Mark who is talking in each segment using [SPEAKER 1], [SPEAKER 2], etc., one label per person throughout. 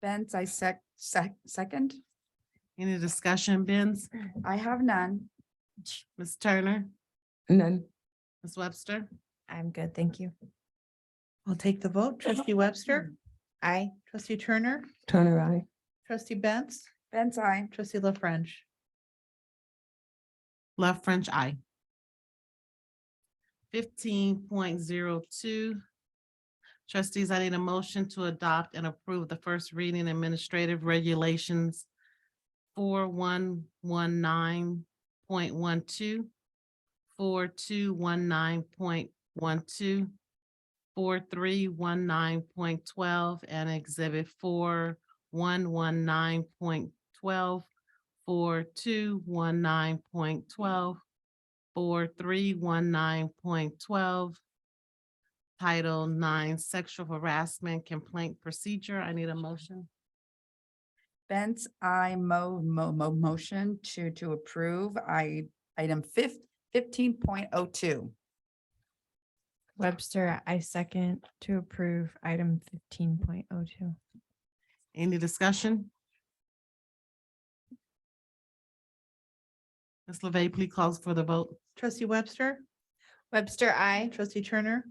[SPEAKER 1] Benz, I sec, sec, second.
[SPEAKER 2] Any discussion, Benz?
[SPEAKER 1] I have none.
[SPEAKER 2] Ms. Turner?
[SPEAKER 3] None.
[SPEAKER 2] Ms. Webster?
[SPEAKER 4] I'm good, thank you.
[SPEAKER 5] I'll take the vote. Trustee
[SPEAKER 2] Hmm.
[SPEAKER 5] Webster,
[SPEAKER 4] I,
[SPEAKER 5] trustee Turner,
[SPEAKER 3] Turner, I.
[SPEAKER 5] trustee Benz,
[SPEAKER 1] Benz, I.
[SPEAKER 5] trustee La French.
[SPEAKER 2] Left French eye. Fifteen point zero two. Trustees, I need a motion to adopt and approve the first reading administrative regulations four one one nine point one two, four two one nine point one two, four three one nine point twelve, and exhibit four one one nine point twelve, four two one nine point twelve, four three one nine point twelve. Title nine, sexual harassment complaint procedure. I need a motion.
[SPEAKER 1] Benz, I mo, mo, mo, motion to, to approve. I, item fif, fifteen point oh two.
[SPEAKER 4] Webster, I second to approve item fifteen point oh two.
[SPEAKER 2] Any discussion? Ms. LeVey, please call for the vote.
[SPEAKER 5] Trustee Webster,
[SPEAKER 4] Webster, I.
[SPEAKER 5] trustee Turner,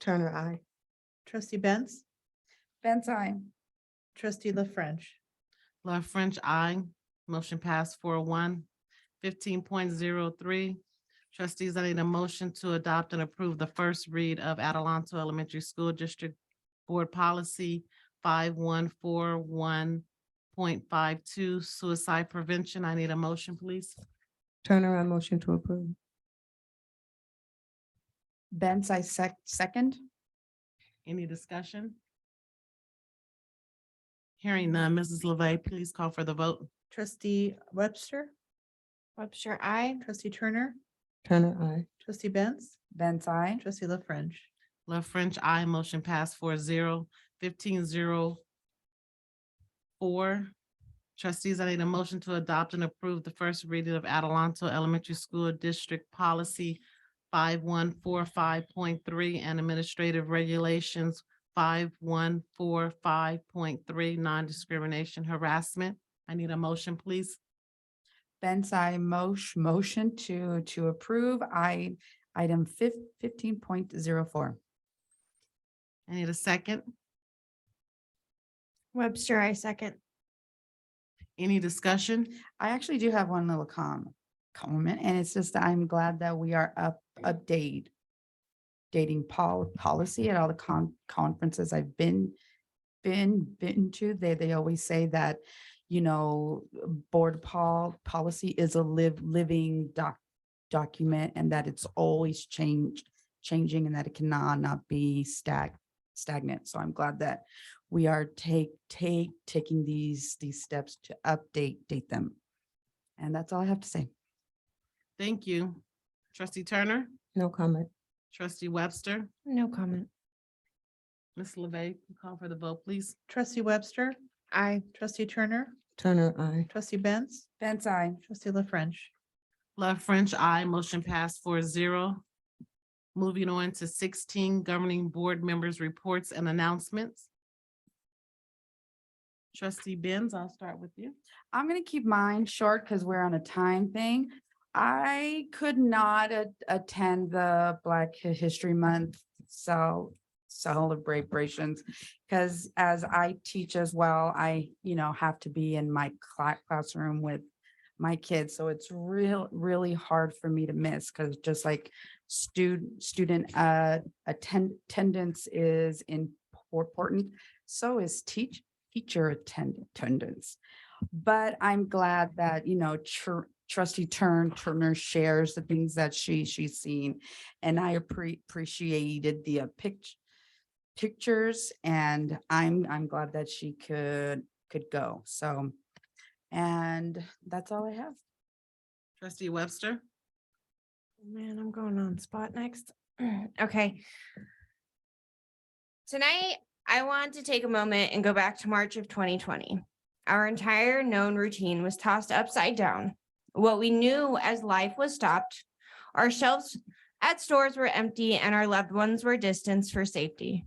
[SPEAKER 3] Turner, I.
[SPEAKER 5] trustee Benz,
[SPEAKER 1] Benz, I.
[SPEAKER 5] trustee La French.
[SPEAKER 2] Love French, I. Motion passed four oh one. Fifteen point zero three. Trustees, I need a motion to adopt and approve the first read of Adelanto Elementary School District Board Policy five one four one point five two suicide prevention. I need a motion, please.
[SPEAKER 3] Turner, I motion to approve.
[SPEAKER 1] Benz, I sec, second.
[SPEAKER 2] Any discussion? Hearing none, Mrs. LeVey, please call for the vote.
[SPEAKER 5] Trustee Webster,
[SPEAKER 4] Webster, I.
[SPEAKER 5] trustee Turner,
[SPEAKER 3] Turner, I.
[SPEAKER 5] trustee Benz,
[SPEAKER 1] Benz, I.
[SPEAKER 5] trustee La French.
[SPEAKER 2] Love French, I motion pass four zero fifteen zero four. Trustees, I need a motion to adopt and approve the first reading of Adelanto Elementary School District Policy five one four five point three and Administrative Regulations five one four five point three Non-Discrimination Harassment. I need a motion, please.
[SPEAKER 1] Benz, I motion, motion to, to approve. I, item fif, fifteen point zero four.
[SPEAKER 2] I need a second.
[SPEAKER 4] Webster, I second.
[SPEAKER 2] Any discussion?
[SPEAKER 1] I actually do have one little com, comment, and it's just that I'm glad that we are up, update. Dating pol- policy at all the con- conferences I've been, been, been to, they, they always say that. You know, board pol- policy is a live, living doc, document and that it's always changed. Changing and that it cannot not be stag, stagnant, so I'm glad that we are take, take, taking these, these steps to update, date them. And that's all I have to say.
[SPEAKER 2] Thank you. Trustee Turner,
[SPEAKER 3] No comment.
[SPEAKER 2] trustee Webster,
[SPEAKER 4] No comment.
[SPEAKER 2] Ms. LeVey, call for the vote, please.
[SPEAKER 5] Trustee Webster,
[SPEAKER 4] I.
[SPEAKER 5] trustee Turner,
[SPEAKER 3] Turner, I.
[SPEAKER 5] trustee Benz,
[SPEAKER 1] Benz, I.
[SPEAKER 5] trustee La French.
[SPEAKER 2] Love French, I motion passed four zero. Moving on to sixteen governing board members' reports and announcements. Trustee Benz, I'll start with you.
[SPEAKER 1] I'm gonna keep mine short because we're on a time thing. I could not a- attend the Black Hi- History Month so celebrations because as I teach as well, I, you know, have to be in my cla- classroom with my kids. So it's real, really hard for me to miss because just like student, student uh attend attendance is important, so is teach teacher attend attendance. But I'm glad that, you know, tr- trustee Turn Turner shares the things that she she's seen. And I appre- appreciated the uh, pic- pictures and I'm I'm glad that she could could go. So and that's all I have.
[SPEAKER 2] Trustee Webster,
[SPEAKER 4] Man, I'm going on spot next. Okay.
[SPEAKER 6] Tonight, I want to take a moment and go back to March of 2020. Our entire known routine was tossed upside down. What we knew as life was stopped, our shelves at stores were empty, and our loved ones were distanced for safety.